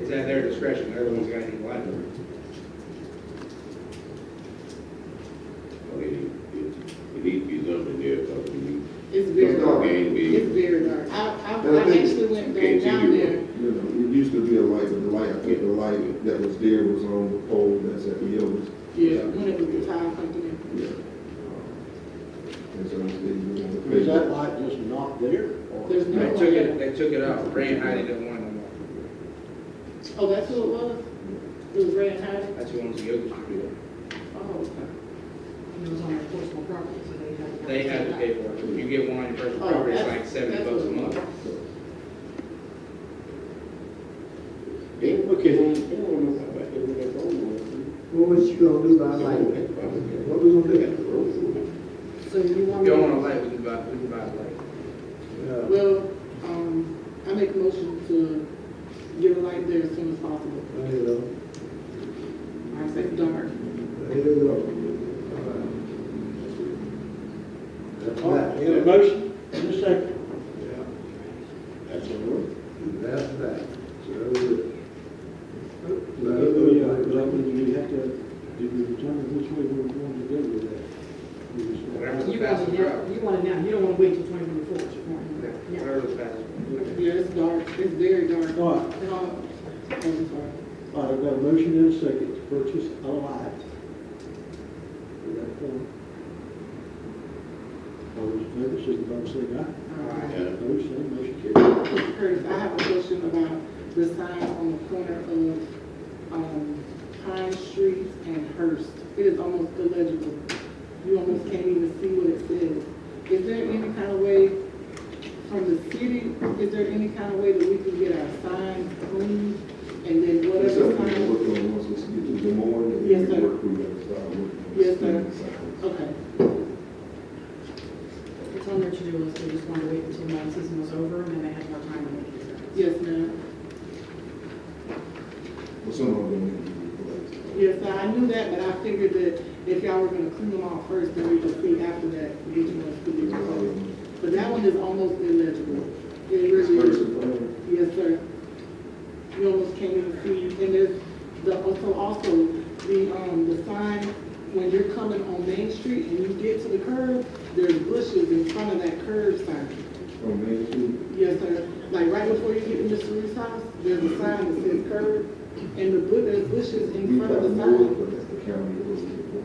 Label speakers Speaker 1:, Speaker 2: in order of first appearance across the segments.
Speaker 1: It's at their discretion, they're the ones that need library.
Speaker 2: But it, it, it needs to be something there, because we need,
Speaker 3: It's very
Speaker 2: It's not
Speaker 3: dark.
Speaker 2: game big.
Speaker 3: It's very dark. I, I, I
Speaker 4: Well, I think
Speaker 3: actually went
Speaker 2: you
Speaker 3: back
Speaker 2: can't
Speaker 3: down
Speaker 2: do
Speaker 3: there.
Speaker 2: it.
Speaker 4: You know, it used to be a light, but the light, I think the light that was there was on the pole that's at the Elvis.
Speaker 3: Yeah. When it was the tire company.
Speaker 4: Yeah. Um, And so it's, it's.
Speaker 5: Is that light just not there? or-
Speaker 3: There's
Speaker 1: They
Speaker 3: no
Speaker 1: took it, they took it out, Ray and Heidi didn't want it no more.
Speaker 3: Oh, that's who it was? It was Ray and Hyde?
Speaker 1: That's who owns the yoga studio.
Speaker 3: Oh, okay.
Speaker 6: It was on their personal property, so they had to.
Speaker 1: They had to pay for it. If you get one on your personal
Speaker 3: Oh,
Speaker 1: property, it's
Speaker 3: that's-
Speaker 1: like seventy
Speaker 3: that's
Speaker 1: bucks a
Speaker 3: what-
Speaker 1: month.
Speaker 2: they don't look at it, they don't know about that, they don't know.
Speaker 7: Well, what you gonna do about light? What we gonna
Speaker 2: Look
Speaker 7: do?
Speaker 2: at the road.
Speaker 6: So you want
Speaker 1: If you
Speaker 6: me?
Speaker 1: don't want a light, we can buy, we can buy a light.
Speaker 7: Uh,
Speaker 3: Well, um, I make a motion to get a light there as soon as possible.
Speaker 7: I don't know.
Speaker 3: I say
Speaker 7: I
Speaker 3: dark.
Speaker 7: don't know.
Speaker 5: All right, we have a motion and a second.
Speaker 7: Yeah,
Speaker 2: That's the road.
Speaker 7: That's that. So,
Speaker 5: Like, uh, like, we have to, did we determine which way we were going to go with that? We just-
Speaker 1: Whatever.
Speaker 6: You want it now, you want it now, you don't want to wait till twenty twenty-four, you want it now.
Speaker 1: Whatever the fastest one.
Speaker 3: Yeah, it's dark. It's very dark.
Speaker 5: All right,
Speaker 3: And all- oh, I'm sorry.
Speaker 5: all right, I've got a motion and a second to purchase a light. We got a form. All those in favor, signify by saying aye.
Speaker 3: All right.
Speaker 2: Yeah.
Speaker 5: Opposed, same, motion carries.
Speaker 3: Curtis, I have a question about the sign on the corner of, um, Pine Street and Hurst. It is almost illegible. You almost can't even see what it says. Is there any kind of way from the city, is there any kind of way that we can get our signs cleaned? And then
Speaker 4: It's
Speaker 3: whatever
Speaker 4: something we're
Speaker 3: sign,
Speaker 4: working on once it's get to the morning, and
Speaker 3: Yes,
Speaker 4: we
Speaker 3: sir.
Speaker 4: work, we gotta start working. on
Speaker 3: Yes, sir.
Speaker 4: the signs.
Speaker 3: okay,
Speaker 6: It's on their to-do list, they just want to wait until the season was over, and then they had more time to make it.
Speaker 3: yes, ma'am.
Speaker 4: But some of them need to be
Speaker 3: Yes,
Speaker 4: replaced.
Speaker 3: sir, I knew that, but I figured that if y'all were gonna clean them all first, then we could see after that which ones could be
Speaker 4: It's all
Speaker 3: replaced.
Speaker 4: of them.
Speaker 3: But that one is almost illegible. It
Speaker 4: It's
Speaker 3: really
Speaker 4: first
Speaker 3: is.
Speaker 4: and final.
Speaker 3: Yes, sir. You almost can't even see, and there's the, also, also, the, um, the sign, when you're coming on Main Street and you get to the curb, there's bushes in front of that curb sign.
Speaker 4: On Main Street.
Speaker 3: Yes, sir. Like right before you get to Mr. Reed's house, there's a sign that says curb, and the, bu- there's bushes in
Speaker 4: We
Speaker 3: front of
Speaker 4: probably
Speaker 3: the
Speaker 4: know it,
Speaker 3: sign.
Speaker 4: but that's the county that was before.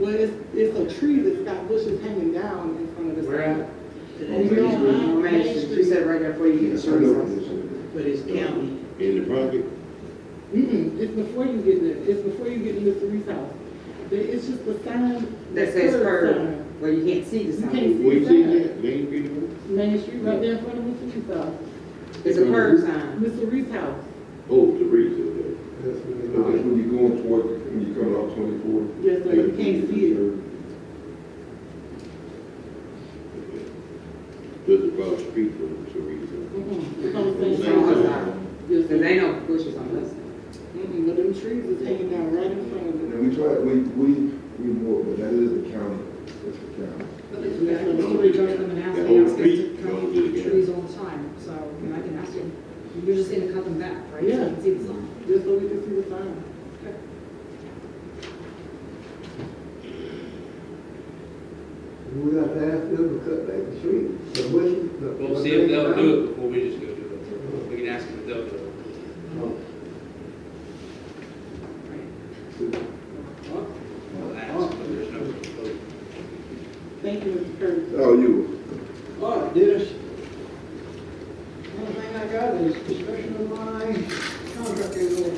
Speaker 3: Well, it's, it's a tree that's got bushes hanging down in front of the sign.
Speaker 1: Where at?
Speaker 4: On Main Street.
Speaker 3: On Main Street.
Speaker 8: She said right there before you get
Speaker 4: I know
Speaker 8: insurance.
Speaker 4: this one.
Speaker 8: But it's county.
Speaker 2: In the project,
Speaker 3: Mm-mm, Mm-hmm. it's before you get there, it's before you get into Reese's house. There- It's just the sign.
Speaker 8: That
Speaker 3: the
Speaker 8: says
Speaker 3: sign.
Speaker 8: curb, where you can't see the
Speaker 3: You
Speaker 8: sign.
Speaker 3: can't
Speaker 2: we
Speaker 3: see
Speaker 2: see
Speaker 3: that.
Speaker 2: that, they ain't getting it.
Speaker 3: Main Street right there in front of Mr. Reese's house.
Speaker 8: Uh-huh. It's a curb sign.
Speaker 3: Mr. Reese's house,
Speaker 2: Oh, the reason,
Speaker 7: that's what
Speaker 4: But that's when you're going toward, when you're coming off twenty-four.
Speaker 3: yes, sir, you can't see it.
Speaker 2: does it cross the street from the reason?
Speaker 3: Mm-mm, It's on Mm-hmm. the
Speaker 8: It's
Speaker 3: same
Speaker 8: on
Speaker 3: side.
Speaker 8: the sign.
Speaker 3: Yes,
Speaker 8: Cause
Speaker 3: sir.
Speaker 8: ain't no bushes on this. side.
Speaker 3: Mm-mm, but them trees is hanging down right in front of it.
Speaker 4: And we try, we, we, we more, but that is the county, that's the county.
Speaker 6: Somebody goes to them and asks,
Speaker 2: Yeah,
Speaker 6: they
Speaker 2: old
Speaker 6: ask us
Speaker 2: feet,
Speaker 6: to
Speaker 2: don't
Speaker 6: cut
Speaker 2: do it.
Speaker 6: trees all the time, so, and I can ask them, you're just saying to cut them back, right?
Speaker 3: Yeah.
Speaker 6: So you can see the sign.
Speaker 3: Just so we can see the sign.
Speaker 7: We got to ask them to cut back the tree, the bushes. the-
Speaker 1: We'll see if they'll do it before we just go do it. We can ask them if they'll do it. We'll ask, but there's no.
Speaker 3: Thank you, Mr. Curtis.
Speaker 4: Oh, you.
Speaker 5: All right, Dennis.
Speaker 3: Oh,
Speaker 5: One thing I got is discussion of my contract renewal.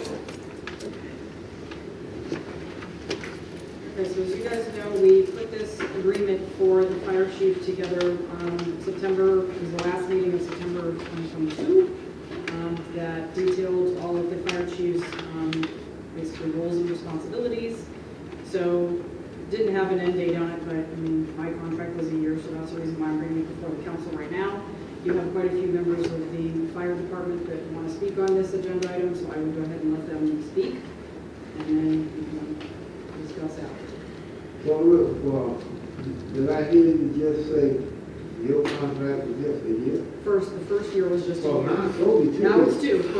Speaker 6: Okay, so as you guys know, we put this agreement for the fire chief together, um, September, it was the last meeting of September 2022, um, that detailed all of the fire chief's, um, basically roles and responsibilities. So, didn't have an end date on it, but, I mean, my contract was a year, so that's the reason why I'm bringing it before the council right now. You have quite a few members of the fire department that want to speak on this agenda item, so I will go ahead and let them speak, and then we can discuss after.
Speaker 7: Well, look, well, did I hear you just say your contract is just a year?
Speaker 6: First, the first year was just a
Speaker 7: Well,
Speaker 6: year.
Speaker 7: mine told me two.
Speaker 6: Now it's two, correct.